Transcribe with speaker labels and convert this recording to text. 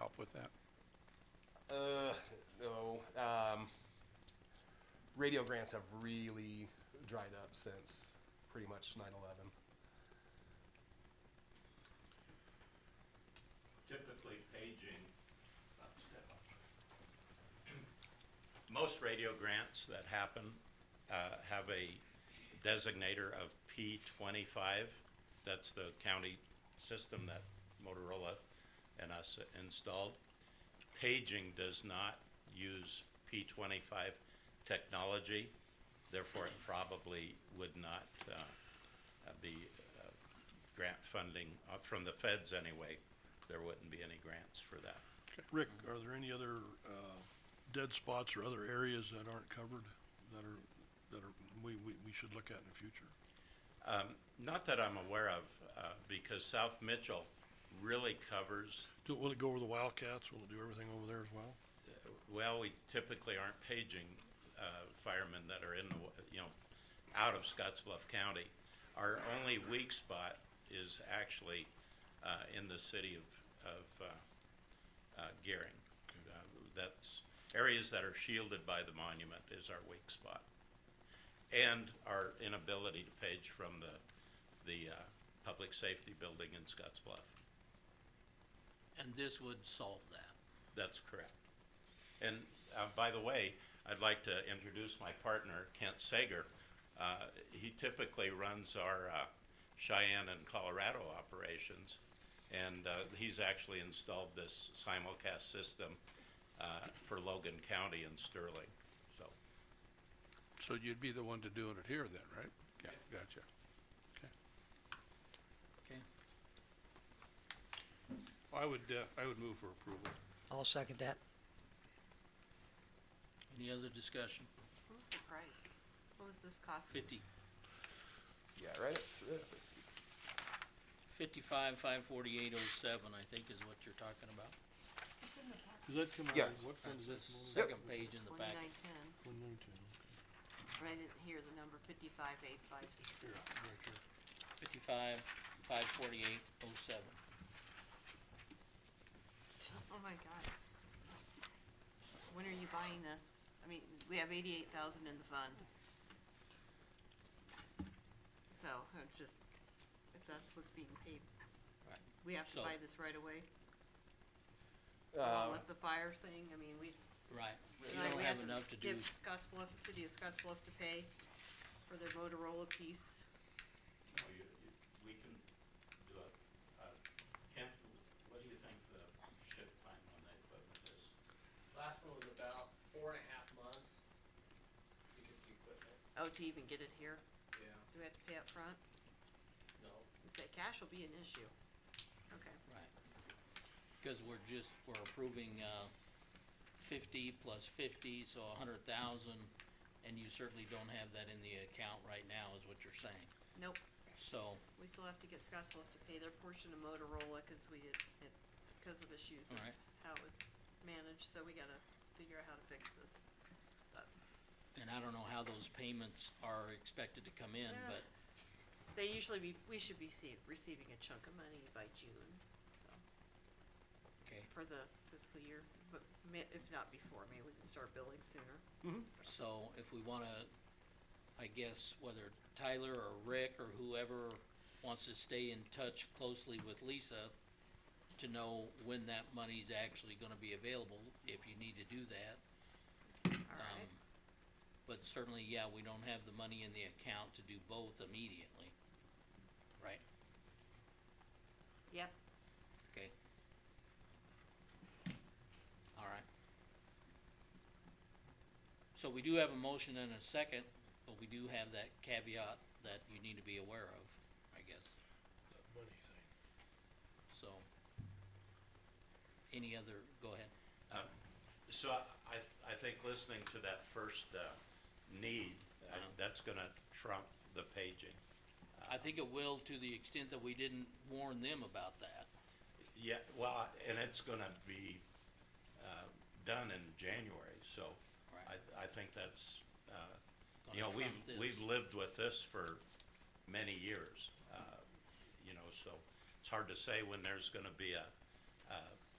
Speaker 1: up with that?
Speaker 2: Uh, no. Um, radio grants have really dried up since pretty much 9 11.
Speaker 3: typically paging, up, step up. Most radio grants that happen uh, have a designator of P twenty-five. That's the county system that Motorola and us installed. Paging does not use P twenty-five technology, therefore it probably would not uh, uh, be grant funding, uh, from the feds anyway, there wouldn't be any grants for that.
Speaker 1: Okay. Rick, are there any other, uh, dead spots or other areas that aren't covered that are, that are, we, we, we should look at in the future?
Speaker 3: Not that I'm aware of, uh, because South Mitchell really covers,
Speaker 1: Do, will it go over the Wildcats? Will it do everything over there as well?
Speaker 3: well, we typically aren't paging, uh, firemen that are in the, wa- you know, out of Scottsbluff County. Our only weak spot is actually, uh, in the city of, of, uh, uh, Gearing. Uh, That's, areas that are shielded by the monument is our weak spot. And our inability to page from the, the, uh, public safety building in Scotts Bluff.
Speaker 4: And this would solve that.
Speaker 3: That's correct. And, uh, by the way, I'd like to introduce my partner, Kent Sager. Uh, he typically runs our, uh, Cheyenne and Colorado operations. And, uh, he's actually installed this simulcast system, uh, for Logan County and Sterling, so.
Speaker 1: So you'd be the one to doing it here then, right? Yeah, gotcha.
Speaker 4: Okay.
Speaker 1: I would, uh, I would move for approval.
Speaker 5: I'll second that.
Speaker 4: Any other discussion?
Speaker 6: What was the price? What was this cost?
Speaker 4: Fifty,
Speaker 2: Yeah, right?
Speaker 1: Uh,
Speaker 2: at- right at 50.
Speaker 4: fifty-five, five forty-eight oh seven, I think is what you're talking about.
Speaker 1: Does that come out,
Speaker 2: Yes.
Speaker 1: what fund
Speaker 4: That's
Speaker 1: is
Speaker 4: the
Speaker 1: that?
Speaker 4: second page in the packet.
Speaker 6: Twenty-nine ten,
Speaker 1: One nineteen.
Speaker 6: but I didn't hear the number, fifty-five eight five,
Speaker 1: Here, right here.
Speaker 4: Fifty-five, five forty-eight oh seven.
Speaker 6: oh my god. When are you buying this? I mean, we have eighty-eight thousand in the fund. So, I'm just, if that's what's being paid,
Speaker 4: Right.
Speaker 6: we have to
Speaker 4: So-
Speaker 6: buy this right away,
Speaker 2: Uh,
Speaker 6: along with the fire thing, I mean, we,
Speaker 4: Right. You
Speaker 6: like,
Speaker 4: don't
Speaker 6: we
Speaker 4: have
Speaker 6: have to
Speaker 4: enough to do,
Speaker 6: give Scotts Bluff, the city of Scotts Bluff to pay for their Motorola piece.
Speaker 3: Well, you, you, we can do it. Uh, Kent, what do you think the ship time on that equipment is?
Speaker 7: Last one was about four and a half months to get the equipment.
Speaker 6: Oh, to even get it here,
Speaker 7: Yeah.
Speaker 6: do we have to pay up front?
Speaker 7: No,
Speaker 6: You say cash will be an issue. Okay.
Speaker 4: right. Cause we're just, we're approving, uh, fifty plus fifty, so a hundred thousand, and you certainly don't have that in the account right now, is what you're saying.
Speaker 6: Nope,
Speaker 4: So,
Speaker 6: we still have to get Scottsville to pay their portion of Motorola, cause we did, it, cause of issues and
Speaker 4: Alright.
Speaker 6: how it was managed, so we gotta figure out how to fix this. But
Speaker 4: and I don't know how those payments are expected to come in,
Speaker 6: Yeah.
Speaker 4: but
Speaker 6: They usually be, we should be see, receiving a chunk of money by June, so,
Speaker 4: Okay,
Speaker 6: for the fiscal year, but ma- if not before, maybe we can start billing sooner.
Speaker 4: so if we wanna, I guess whether Tyler or Rick or whoever wants to stay in touch closely with Lisa to know when that money's actually gonna be available, if you need to do that.
Speaker 6: Alright,
Speaker 4: Um, But certainly, yeah, we don't have the money in the account to do both immediately. Right,
Speaker 6: yep,
Speaker 4: okay. Alright. So we do have a motion and a second, but we do have that caveat that you need to be aware of, I guess,
Speaker 1: That money thing.
Speaker 4: so. Any other, go ahead.
Speaker 3: Um, So I, I think listening to that first, uh, need, uh,
Speaker 4: Uh-huh.
Speaker 3: that's gonna trump the paging.
Speaker 4: I think it will to the extent that we didn't warn them about that.
Speaker 3: Yeah, well, and it's gonna be, uh, done in January, so
Speaker 4: Right.
Speaker 3: I, I think that's, uh, you know,
Speaker 4: Gonna
Speaker 3: we've,
Speaker 4: trump this.
Speaker 3: we've lived with this for many years, uh, you know, so it's hard to say when there's gonna be a, uh,